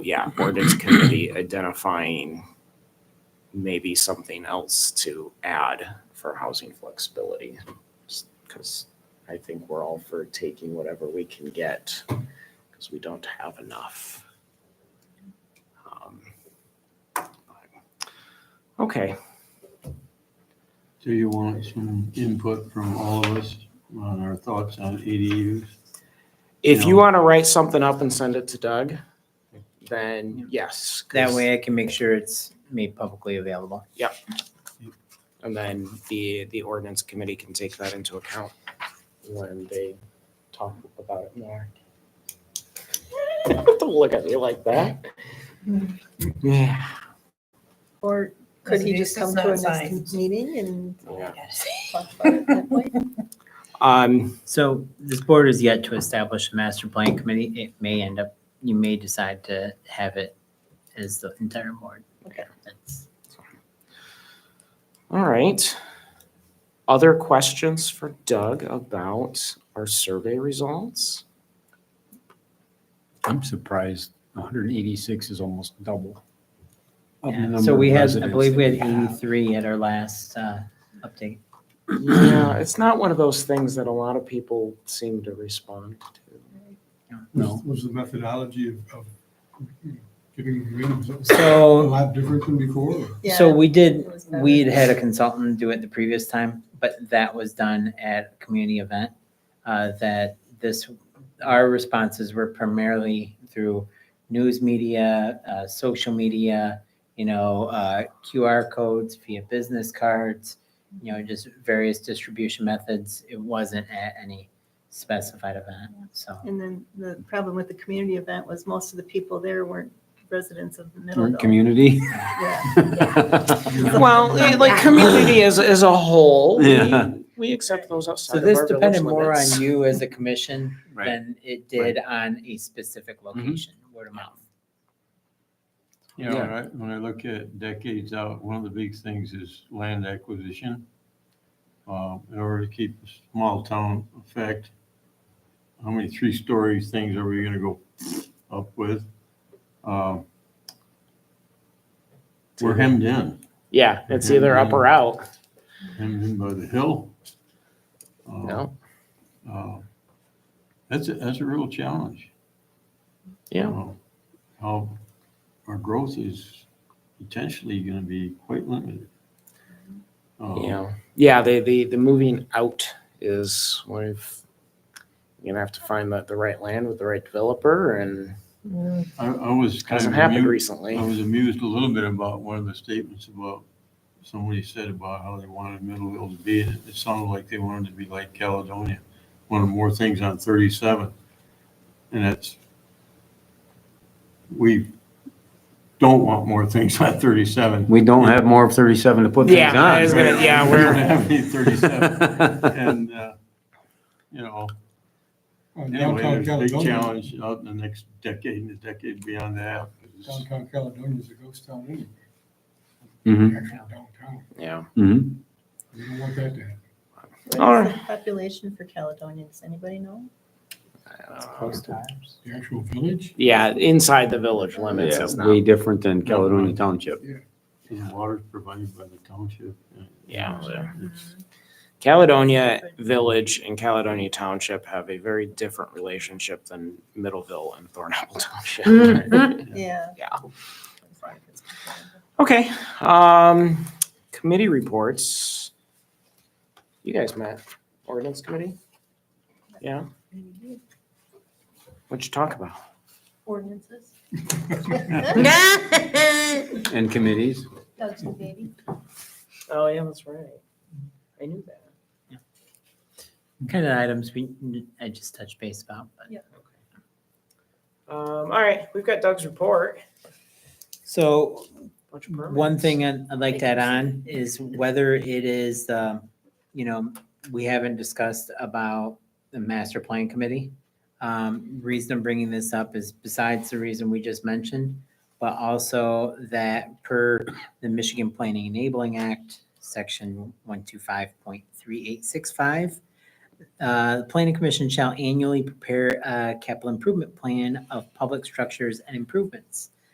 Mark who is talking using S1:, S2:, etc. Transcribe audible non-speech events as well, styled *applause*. S1: *clears throat*
S2: yeah, ordinance committee identifying maybe something else to add for housing flexibility. Because I think we're all for taking whatever we can get because we don't have enough. Um, Okay,
S3: Do you want some input from all of us on our thoughts on ADUs?
S2: if you
S3: No.
S2: want to write something up and send it to Doug, then yes. 'cause-
S1: That way I can make sure it's made publicly available.
S2: And then the, the ordinance committee can take that into account when they talk about it more. *laughs* Don't look at me like that. Yeah.
S4: Or could he
S5: Because
S4: just
S5: this
S4: come
S5: is
S4: to a
S5: not
S4: next
S5: science.
S4: meeting and
S2: Yeah.
S4: talk about it
S1: *laughs*
S4: that way?
S2: Um,
S1: So this board is yet to establish a master plan committee. It may end up, you may decide to have it as the entire board.
S4: Okay.
S1: That's-
S2: all right. Other questions for Doug about our survey results?
S6: I'm surprised 186 is almost double.
S3: of the
S1: yeah.
S3: number
S1: So
S3: of
S1: we had, I
S3: residents
S1: believe we had
S3: that have.
S1: 83 at our last uh, update.
S2: Yeah, it's not one of those things that a lot of people seem to respond to.
S6: No.
S7: Was the methodology of, of giving rooms a
S1: So,
S7: lot different than before?
S1: so
S4: Yeah,
S1: we did,
S4: it was better.
S1: we had had a consultant do it the previous time, but that was done at a community event. Uh, that this, our responses were primarily through news media, uh, social media, you know, uh, QR codes via business cards, you know, just various distribution methods. It wasn't at any specified event, so.
S4: And then the problem with the community event was most of the people there weren't residents of the
S6: Or
S4: Middleville.
S6: Community.
S4: Yeah.
S1: *laughs*
S6: *laughs*
S4: um,
S2: Well, eh, like community as, as a whole,
S6: Yeah.
S2: we, we accept those outside
S1: So
S2: of our village
S1: this depended more
S2: limits.
S1: on you as a commission
S6: Right.
S1: than it did on a specific
S2: Mm-hmm.
S1: location, word of mouth.
S3: You know, when I, when I look at decades out, one of the big things is land acquisition. Uh, in order to keep the small town effect, how many three-story things are we gonna go up with? Um, We're hemmed in.
S2: Yeah, it's either up or out.
S3: hemmed in by the hill. Uh,
S2: No.
S3: uh, That's, a- that's a real challenge.
S2: Yeah.
S3: Uh, How our growth is potentially going to be quite limited. Uh,
S2: Yeah. Yeah. The, the, the moving out is one of, you're going to have to find the, the right land with the right developer and
S3: I, I was kind
S2: hasn't
S3: of
S2: happened
S3: amused,
S2: recently.
S3: I was amused a little bit about one of the statements about, somebody said about how they wanted Middleville to be, and it sounded like they wanted to be like Caledonia, wanted more things on 37. And that's, we don't want more things on 37.
S6: We don't have more of 37 to put things
S2: Yeah,
S6: on.
S2: I was gonna- yeah,
S6: *laughs*
S3: We
S2: we're-
S3: don't have any 37. And, uh, you know,
S7: Uh,
S3: anyway,
S7: Downtown
S3: there's a big
S7: Caledonia,
S3: challenge out in the next decade and the decade beyond that.
S7: downtown Caledonia is a ghost town anyway.
S6: Mhm.
S7: Actually, downtown.
S2: Yeah.
S6: Mhm.
S7: We don't want that to happen.
S2: All
S4: What is the population for Caledonia? Does anybody know?
S7: The actual village,
S2: Yeah. Inside the village limits.
S6: Yeah,
S2: It's
S6: Way
S2: not,
S6: different than Caledonia Township.
S3: And the water's provided by the township. and-
S2: Oh, Yeah, there.
S3: It's-
S2: Caledonia Village and Caledonia Township have a very different relationship than Middleville and Thornapple *laughs*
S3: Mm,
S2: Township.
S4: Yeah.
S2: Yeah. Okay, um, committee reports. You guys met, ordinance committee? Yeah, what'd you talk about? *laughs*
S4: Ordinances. *laughs*
S6: And committees.
S4: Doug's the baby.
S2: Oh, yeah, that's right. I knew that.
S1: Kind of items we, I just touched base about, but.
S4: Yeah.
S2: Um, all right, we've got Doug's report.
S1: So
S2: Bunch of permits.
S1: one thing I'd I'd like to add on is whether it is, um, you know, we haven't discussed about the master plan committee. Um, Reason I'm bringing this up is besides the reason we just mentioned, but also that per the Michigan Planning Enabling Act, Section 125.3865, Uh, The planning commission shall annually prepare a capital improvement plan of public structures and improvements.